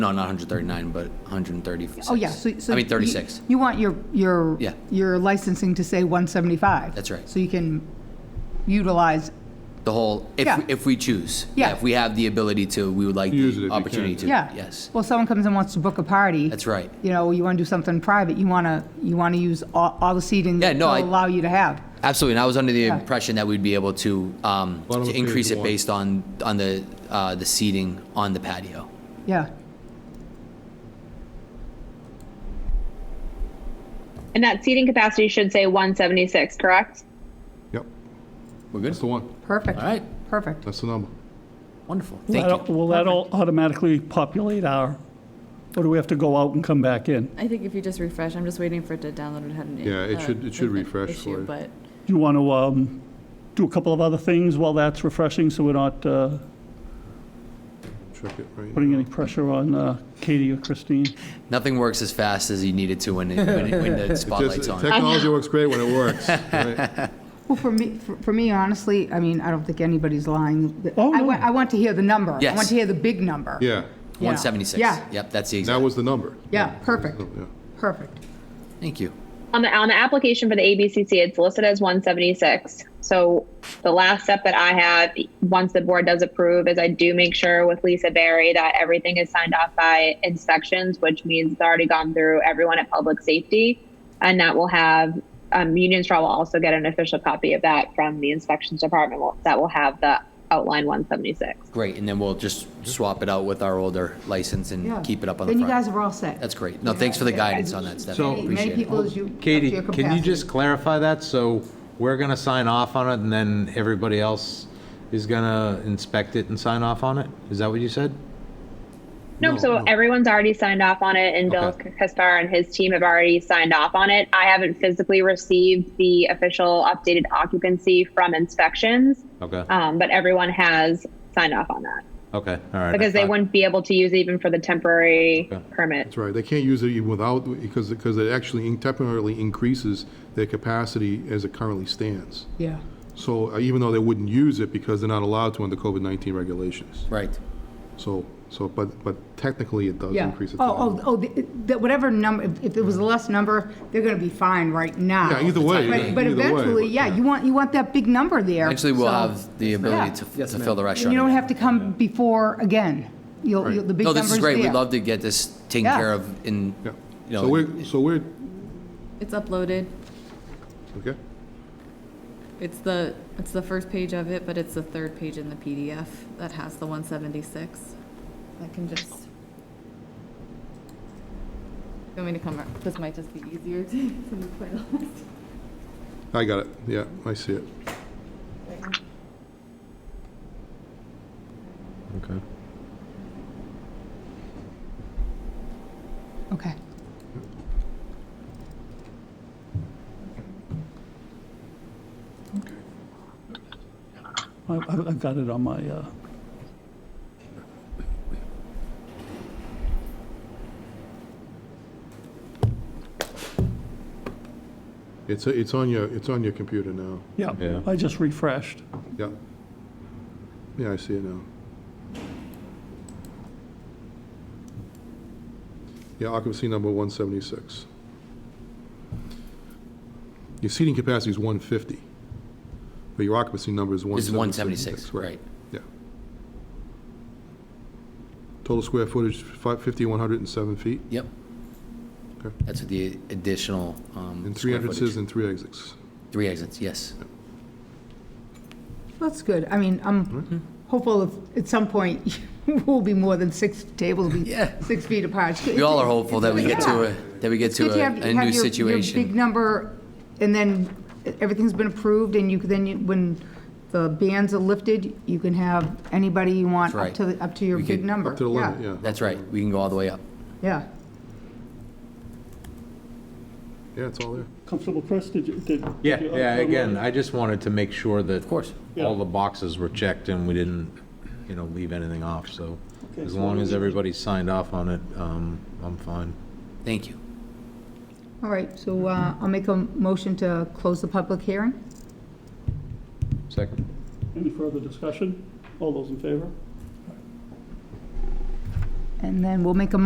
No, not 139, but 136. Oh, yeah, so, so. I mean, you- 36. You want your, your. Yeah. Your licensing to say 175. That's right. So you can utilize, The whole, if, Yeah. if we choose. Yeah. If we have the ability to, we would like Use it if the you opportunity to. can. yeah. Yes, Well, someone comes and wants to book a party. that's right. You know, you want to do something private, you want to, you want to use all, all the seating. Yeah, no, I- They'll allow you to have. Absolutely, and I was under the Yeah. impression that we'd be able to, um, Bottom of to page increase it one. based on, on the, uh, the seating on the patio. Yeah. And that seating capacity should say 176, correct? Yep, We're good? that's the one, Perfect. All right, Perfect. that's the number. wonderful, That'll- thank you. Will that all automatically populate our, or do we have to go out and come back in? I think if you just refresh, I'm just waiting for it to download and have an. Yeah, it uh, should- it should an refresh issue, for you. But Do you want to um, do a couple of other things while that's refreshing, so we're not uh, Check it right putting now. any pressure on uh, Katie or Christine? Nothing works as fast as you need it to when, it- when it- when the Just- uh, spotlight's on. Technology works great when it works, right? Well, for me, for- for me, honestly, I mean, I don't think anybody's lying. The- Oh, I no. want, I want to hear the number. I Yes. want to hear the big number. Yeah, Yeah. 176. Yeah. Yep, that's the that exact, was the number. Yeah, perfect, Yeah. perfect. thank you. On the on the application for the ABCC, it's listed as 176. So the last step that I have, once the board does approve, is I do make sure with Lisa Barry that everything is signed off by inspections, which means it's already gone through everyone at Public Safety, and that will have um, Union Straw will also get an official copy of that from the inspections department. Will- That will have the outline 176. Great, and then we'll just swap it out with our older license Yeah. and keep it up on the Then you guys front. are all set. That's great. No, thanks for the guidance on that, So- Stephanie, Many- Many appreciate it. people as you. up to Katie, your can you capacity. just clarify that? So we're going to sign off on it and then everybody else is going to inspect it and sign off on it? Is that what you said? No, No, so no. everyone's already signed off on it, and Okay. Bill Kaspar and his team have already signed off on it. I haven't physically received the official updated occupancy from inspections, Okay, um, but everyone has signed off on that okay, all right. Uh, I because they thought- wouldn't be able to use it even for the temporary Okay. permit. That's right, they can't use it even without, because, because it actually temporarily increases their capacity as it currently stands. Yeah. So uh, even though they wouldn't use it because they're not allowed to under COVID-19 regulations. Right. So, so, but, but technically it does Yeah. increase it. Oh, oh, oh, the- the- whatever number, if- if it was less number, they're going to be fine right now. Yeah, either way. But but either way, eventually, but- yeah, you want, you want that big number there. Actually, we'll so- have the ability to Yeah. to fill the And restaurant. you don't have to come before again. You'll, you'll- the big No, number's this is there. great. We'd love to get this taken Yeah. care of in, oh, Yeah. you So we're, know, so we're, it's uploaded. okay, It's the, it's the first page of it, but it's the third page in the PDF that has the 176. I can just. You want me to come, ar- this might just be easier to, to be quite honest. I got it, yeah, I see it. Okay. Okay. I- I've I've got it on my, uh, It's, uh, it's on your, it's on your computer now, yeah, Yeah. I just refreshed. yeah. Yeah, I see it now. Yeah, occupancy number 176. Your seating capacity is 150, but your occupancy number is is 176, 176. right? Yeah. Total square footage, fi- 5,107 feet, Yep. Okay. That's with the additional, um. and square 300 footage. citizens and three exits. Three exits, yes. That's good. I mean, Mm-hmm. I'm hopeful if, at some point, we'll be more than six tables, will be Yeah. six feet apart. It's good- We all are hopeful that we get to a, that we get It's good to to a, have- a have new your- your Big situation. number, and then everything's been approved, and you, can- then you- when the bans are lifted, you can have anybody you want That's up right. to, the- up to your We big could- number. Up to the limit, yeah. That's right. We can go all the way up. Yeah. Yeah, it's all there. Comfortable, Chris, did you? did- did Yeah, you yeah, upload again, it? I just wanted to make sure that. Of course. All the boxes were checked and we didn't, you know, leave anything off, so Okay, as so long we- as everybody signed off on it, um, I'm fine. Thank you. All right, so uh, I'll make a motion to close the public hearing. Second. Any further discussion? All those in favor? And then we'll make a